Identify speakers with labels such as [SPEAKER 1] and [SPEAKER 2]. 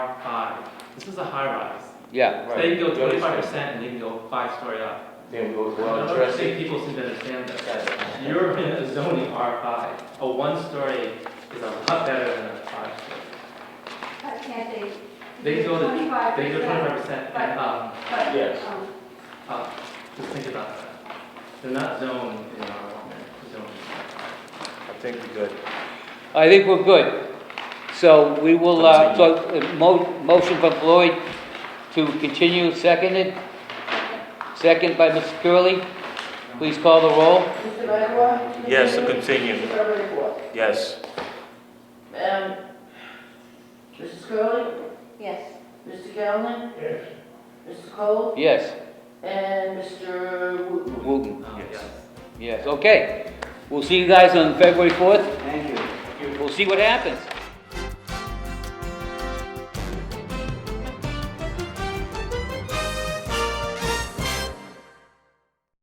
[SPEAKER 1] high. This is a high rise.
[SPEAKER 2] Yeah,
[SPEAKER 1] So they can go
[SPEAKER 3] Right.
[SPEAKER 1] twenty-five percent and they can go five story up.
[SPEAKER 3] Then we'll,
[SPEAKER 1] I
[SPEAKER 3] we'll
[SPEAKER 1] don't
[SPEAKER 3] address
[SPEAKER 1] think
[SPEAKER 3] it.
[SPEAKER 1] people seem to understand that.
[SPEAKER 3] Yeah.
[SPEAKER 1] You're in a zoning R five. A one story is a lot better than a five story.
[SPEAKER 4] But can't they?
[SPEAKER 1] They go to-
[SPEAKER 4] Twenty-five
[SPEAKER 1] They go
[SPEAKER 4] percent,
[SPEAKER 1] twenty-five percent and up,
[SPEAKER 4] but,
[SPEAKER 3] Yes.
[SPEAKER 4] um,
[SPEAKER 1] up. Just think about that. They're not zoned in R one, they're zoned.
[SPEAKER 3] I think we're good.
[SPEAKER 2] I think we're good. So we will, uh, so, uh, mo- motion from Floyd to continue, seconded, second by Mr. Curley. Please call the roll.
[SPEAKER 5] Mr. Langwa?
[SPEAKER 6] Yes, to continue,
[SPEAKER 5] Mr. Langwa?
[SPEAKER 6] yes.
[SPEAKER 5] Madam? Um, Mrs. Curley?
[SPEAKER 4] Yes.
[SPEAKER 5] Mr. Galvin? Yes. Mr. Cole?
[SPEAKER 2] Yes,
[SPEAKER 5] And Mr. Wooten?
[SPEAKER 2] Wooten,
[SPEAKER 1] in. Um,
[SPEAKER 6] Yes.
[SPEAKER 1] yes.
[SPEAKER 2] yes, okay. We'll see you guys on February 4th.
[SPEAKER 3] Thank you.
[SPEAKER 2] We'll see what happens.